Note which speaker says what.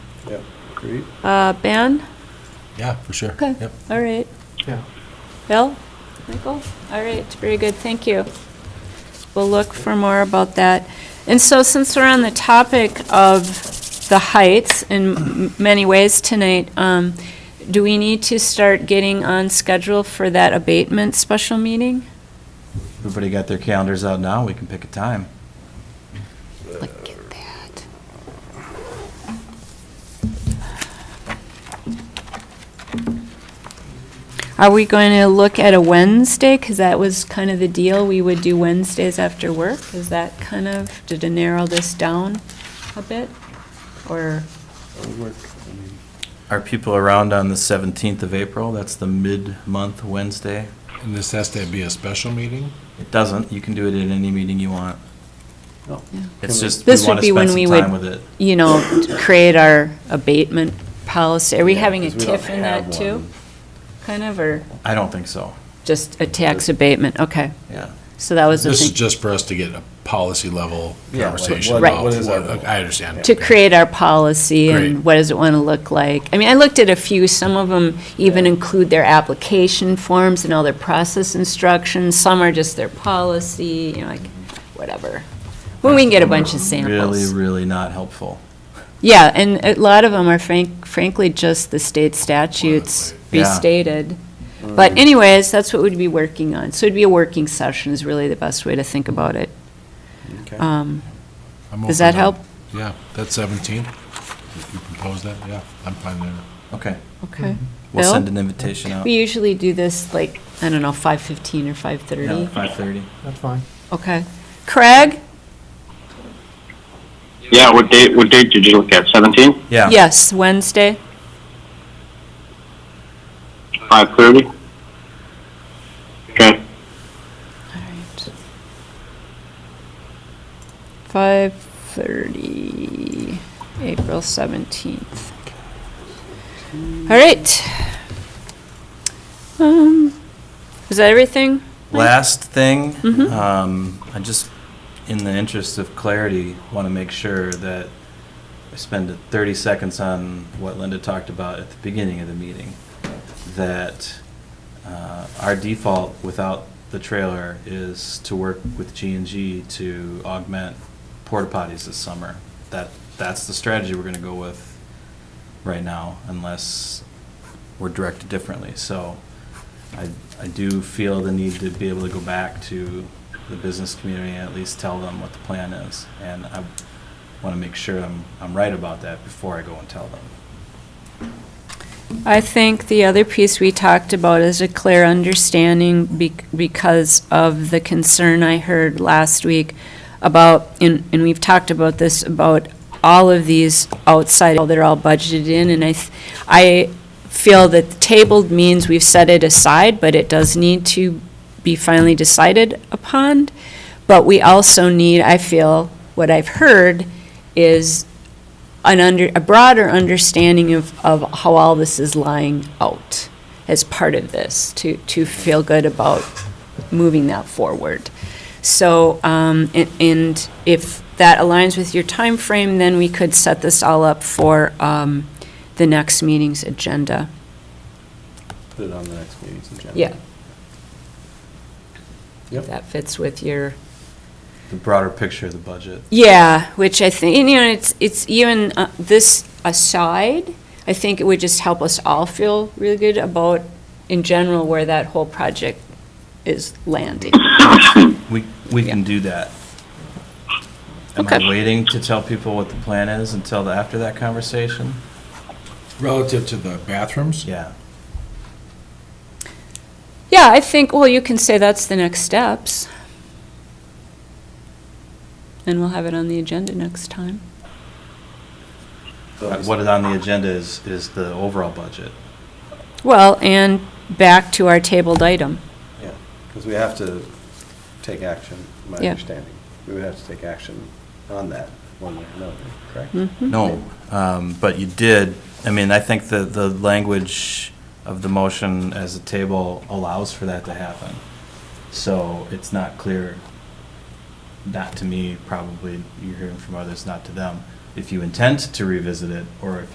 Speaker 1: Yep. Great.
Speaker 2: Uh, Ben?
Speaker 3: Yeah, for sure.
Speaker 2: Okay,
Speaker 3: Yep.
Speaker 2: all right.
Speaker 1: Yeah.
Speaker 2: Bill? Michael? All right, very good, thank you. We'll look for more about that. And so since we're on the topic of the heights in m- many ways tonight, um, do we need to start getting on schedule for that abatement special meeting?
Speaker 4: Everybody got their calendars out now, we can pick a time.
Speaker 2: Look at that. Are we going to look at a Wednesday? Because that was kind of the deal, we would do Wednesdays after work. Is that kind of, did it narrow this down a bit? Or,
Speaker 1: That'll work. I mean,
Speaker 4: Are people around on the 17th of April? That's the mid-month Wednesday.
Speaker 3: And this has to be a special meeting?
Speaker 4: It doesn't, you can do it at any meeting you want.
Speaker 1: no.
Speaker 4: It's
Speaker 1: Can we-
Speaker 4: just, we
Speaker 2: This would
Speaker 4: want
Speaker 2: be
Speaker 4: to
Speaker 2: when
Speaker 4: spend
Speaker 2: we
Speaker 4: some
Speaker 2: would-
Speaker 4: time with it.
Speaker 2: you know, create our abatement policy? Are we
Speaker 1: Yeah,
Speaker 2: having a
Speaker 1: 'cause we don't
Speaker 2: tiff in
Speaker 1: have
Speaker 2: that too?
Speaker 1: one.
Speaker 2: Kind of, or
Speaker 4: I don't think so,
Speaker 2: just a tax abatement? Okay,
Speaker 4: yeah.
Speaker 2: so that was the thing.
Speaker 3: This is just for us to get a policy level
Speaker 1: Yeah, like,
Speaker 3: conversation
Speaker 1: what-
Speaker 2: Right.
Speaker 3: about
Speaker 1: what is our
Speaker 3: what,
Speaker 1: role?
Speaker 3: I understand.
Speaker 2: to create our policy and
Speaker 3: Great.
Speaker 2: what does it want to look like? I mean, I looked at a few, some of them even include their application forms and all their process instructions, some are just their policy, you know, like, whatever. When we can get a bunch of
Speaker 4: Really,
Speaker 2: samples.
Speaker 4: really not helpful.
Speaker 2: Yeah, and a lot of them are frank, frankly, just the state statutes
Speaker 4: Yeah.
Speaker 2: restated. But anyways, that's what we'd be working on. So it'd be a working session is really the best way to think about it.
Speaker 1: Okay.
Speaker 2: Um,
Speaker 3: I'm
Speaker 2: Does
Speaker 3: open
Speaker 2: that
Speaker 3: to-
Speaker 2: help?
Speaker 3: Yeah, that's 17. If you propose that, yeah, I'm fine there.
Speaker 4: Okay,
Speaker 2: Okay.
Speaker 4: we'll
Speaker 2: Bill?
Speaker 4: send an invitation out.
Speaker 2: We usually do this like, I don't know, 5:15 or 5:30.
Speaker 4: 5:30.
Speaker 5: That's fine.
Speaker 2: Okay. Craig?
Speaker 6: Yeah, what date, what date did you look at? 17?
Speaker 4: Yeah.
Speaker 2: Yes, Wednesday.
Speaker 6: 5:30? Okay.
Speaker 2: All right. 5:30, April 17th. All right. Um, Is that everything?
Speaker 4: Last thing,
Speaker 2: Mhm.
Speaker 4: um, I just, in the interest of clarity, want to make sure that I spend 30 seconds on what Linda talked about at the beginning of the meeting, that uh, our default without the trailer is to work with G and G to augment porta potties this summer. That, that's the strategy we're going to go with right now unless we're directed differently. So I, I do feel the need to be able to go back to the business community and at least tell them what the plan is. And I want to make sure I'm, I'm right about that before I go and tell them.
Speaker 2: I think the other piece we talked about is a clear understanding be- because of the concern I heard last week about, and, and we've talked about this, about all of these outside, how they're all budgeted in, and I, th- I feel that tabled means we've set it aside, but it does need to be finally decided upon. But we also need, I feel, what I've heard is an under, a broader understanding of, of how all this is lying out as part of this, to, to feel good about moving that forward. So, um, a- and if that aligns with your time frame, then we could set this all up for, um, the next meeting's agenda.
Speaker 1: Put it on the next meeting's agenda.
Speaker 2: Yeah.
Speaker 1: Yep.
Speaker 2: If that fits with your
Speaker 4: The broader picture of the budget.
Speaker 2: Yeah, which I think, and, you know, it's, it's even uh, this aside, I think it would just help us all feel really good about, in general, where that whole project is landing.
Speaker 4: We, we can do that. Am I
Speaker 2: Okay.
Speaker 4: waiting to tell people what the plan is until the- after that conversation?
Speaker 3: Relative to the bathrooms?
Speaker 4: Yeah.
Speaker 2: Yeah, I think, well, you can say that's the next steps. And we'll have it on the agenda next time.
Speaker 4: What is on the agenda is, is the overall budget.
Speaker 2: Well, and back to our tabled item.
Speaker 1: Yeah, because we have to take action, my
Speaker 2: Yeah.
Speaker 1: understanding. We would have to take action on that one way or another, correct?
Speaker 2: Hmm.
Speaker 4: No, um, but you did, I mean, I think the, the language of the motion as a table allows for that to happen. So it's not clear, not to me, probably, you're hearing from others, not to them, if you intend to revisit it, or if